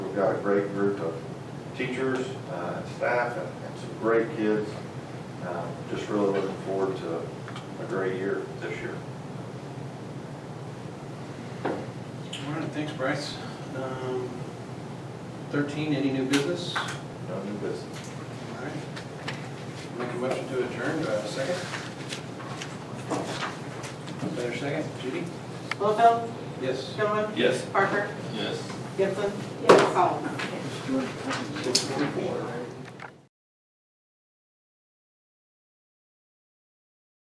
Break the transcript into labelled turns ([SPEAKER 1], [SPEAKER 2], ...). [SPEAKER 1] got a great group of teachers, uh, and staff, and and some great kids. Um, Just really looking forward to a great year this year.
[SPEAKER 2] All right, thanks, Bryce. Um, Thirteen, any new business? All
[SPEAKER 1] No new business.
[SPEAKER 2] right. Make a motion to adjourn, do I have a second? Better second, Judy?
[SPEAKER 3] Littlefield,
[SPEAKER 2] Yes.
[SPEAKER 3] Gilman,
[SPEAKER 1] Yes.
[SPEAKER 3] Parker,
[SPEAKER 1] Yes.
[SPEAKER 3] Gibson, Yes. Collins.
[SPEAKER 2] Six forty-four.